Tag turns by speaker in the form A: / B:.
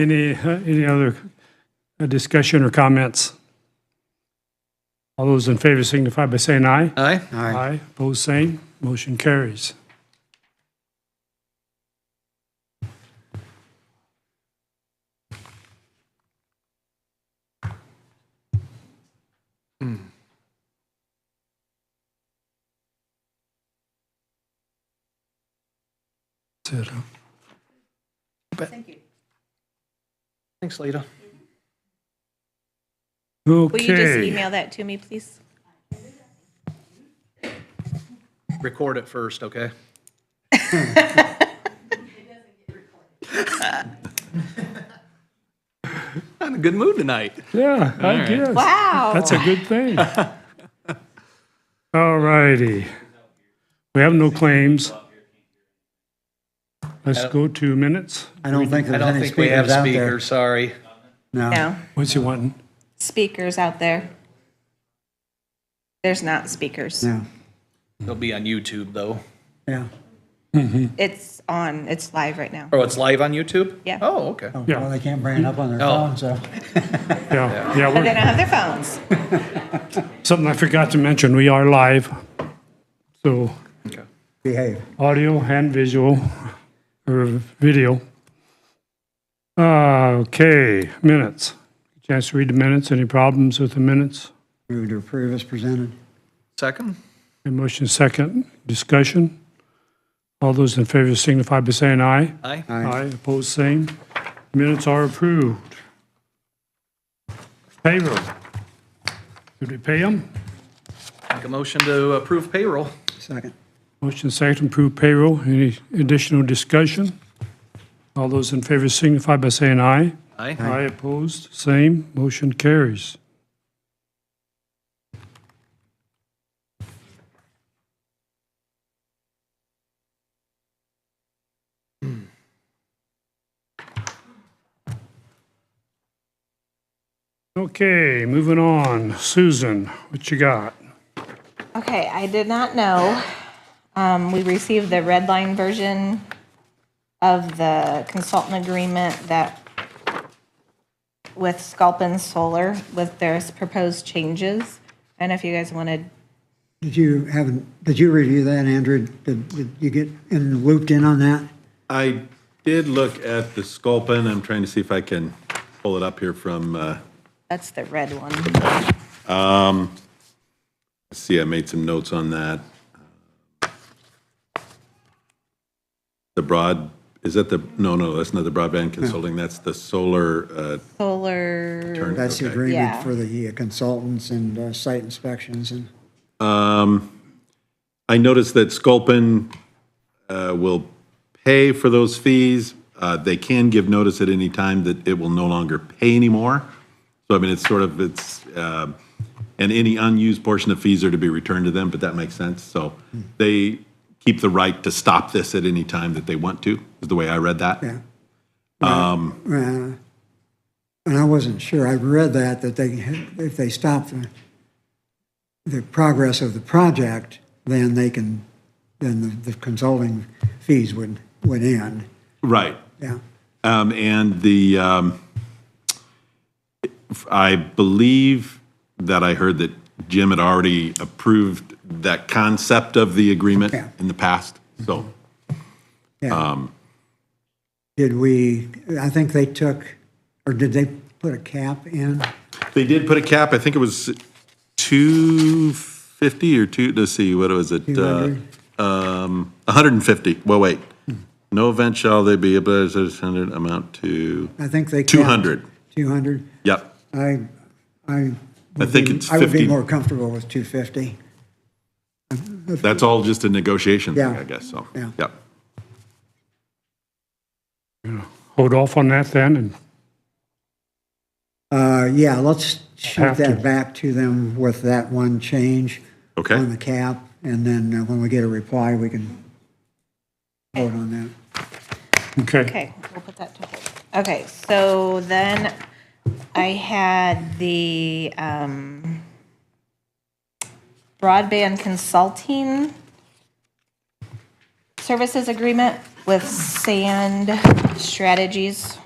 A: Any, uh, any other uh, discussion or comments? All those in favor signify by saying aye.
B: Aye.
A: Aye. Opposed, same. Motion carries. That's it, huh?
B: Thanks, Lita.
C: Will you just
A: Okay.
C: email that to me, please?
B: Record it first, okay? I'm in a good mood tonight.
A: Yeah, I guess.
C: Wow.
A: That's a good thing. All righty. We have no claims. Let's go to minutes.
D: I don't think
B: I
D: there's
B: don't
D: any
B: think we have
D: speakers out there.
B: speakers, sorry.
C: No,
A: What's he wanting?
C: speakers out there. There's not speakers.
D: Yeah,
B: They'll be on YouTube, though.
D: yeah.
C: It's on, it's live right now.
B: Oh, it's live on YouTube?
C: Yeah.
B: Oh, okay.
D: Oh,
A: Yeah.
D: Well, they can't bring it up on their
B: Oh.
D: phone, so.
A: Yeah, yeah,
C: But they
A: we're-
C: don't have their phones.
A: something I forgot to mention, we are live. So
B: Okay.
D: Behave.
A: audio and visual, or video. Okay, minutes. Chance to read the minutes. Any problems with the minutes?
D: Move to approve as presented.
B: Second?
A: A motion second, discussion. All those in favor signify by saying aye.
B: Aye.
A: Aye, opposed, same. Minutes are approved. Payroll. Should we pay them?
B: Make a motion to approve payroll.
D: Second.
A: Motion second, approve payroll. Any additional discussion? All those in favor signify by saying aye.
B: Aye.
A: Aye, opposed, same. Motion carries. Okay, moving on. Susan, what you got?
C: Okay, I did not know. Um, we received the red line version of the consultant agreement that with Sculpin Solar with their proposed changes. I don't know if you guys wanted
D: Did you have, did you review that, Andrew? Did, did you get in, looped in on that?
E: I did look at the Sculpin. I'm trying to see if I can pull it up here from, uh,
C: That's the red one.
E: let's see, I made some notes on that. The broad, is that the, no, no, that's not the broadband consulting. That's the solar, uh,
C: Solar,
E: turn.
D: That's the
E: okay.
C: Yeah.
D: agreement for the uh, consultants and uh, site inspections and,
E: I noticed that Sculpin uh, will pay for those fees. Uh, They can give notice at any time that it will no longer pay anymore. So I mean, it's sort of, it's, um, and any unused portion of fees are to be returned to them, but that makes sense. So they keep the right to stop this at any time that they want to, is the way I read that.
D: yeah. Um. And I wasn't sure. I read that, that they, had- if they stop the, the progress of the project, then they can, then the the consulting fees would, would end.
E: Right.
D: Yeah.
E: Um, and the, um, I believe that I heard that Jim had already approved that concept of the agreement
D: Yeah.
E: in the past. So,
D: Yeah. Did we, I think they took, or did they put a cap in?
E: they did put a cap, I think it was two fifty or two, let's see, what was it? Uh,
D: 200?
E: Um, hundred and fifty, well, wait. No event shall they be, but it's a hundred amount to,
D: I think they. capped
E: 200.
D: 200?
E: yep.
D: I, I. would
E: I think
D: be-
E: it's
D: I would be
E: 50.
D: more comfortable with 250.
E: That's all just a negotiation thing,
D: Yeah.
E: I guess, so,
D: Yeah.
E: yep.
A: Hold off on that then and
D: Uh, yeah, let's shoot
A: Have to.
D: that back to them with that one change.
E: Okay.
D: On the cap, and then uh, when we get a reply, we can vote on that.
A: Okay.
C: okay, we'll put that to hold. Okay, so then I had the um, broadband consulting services agreement with Sand Strategies.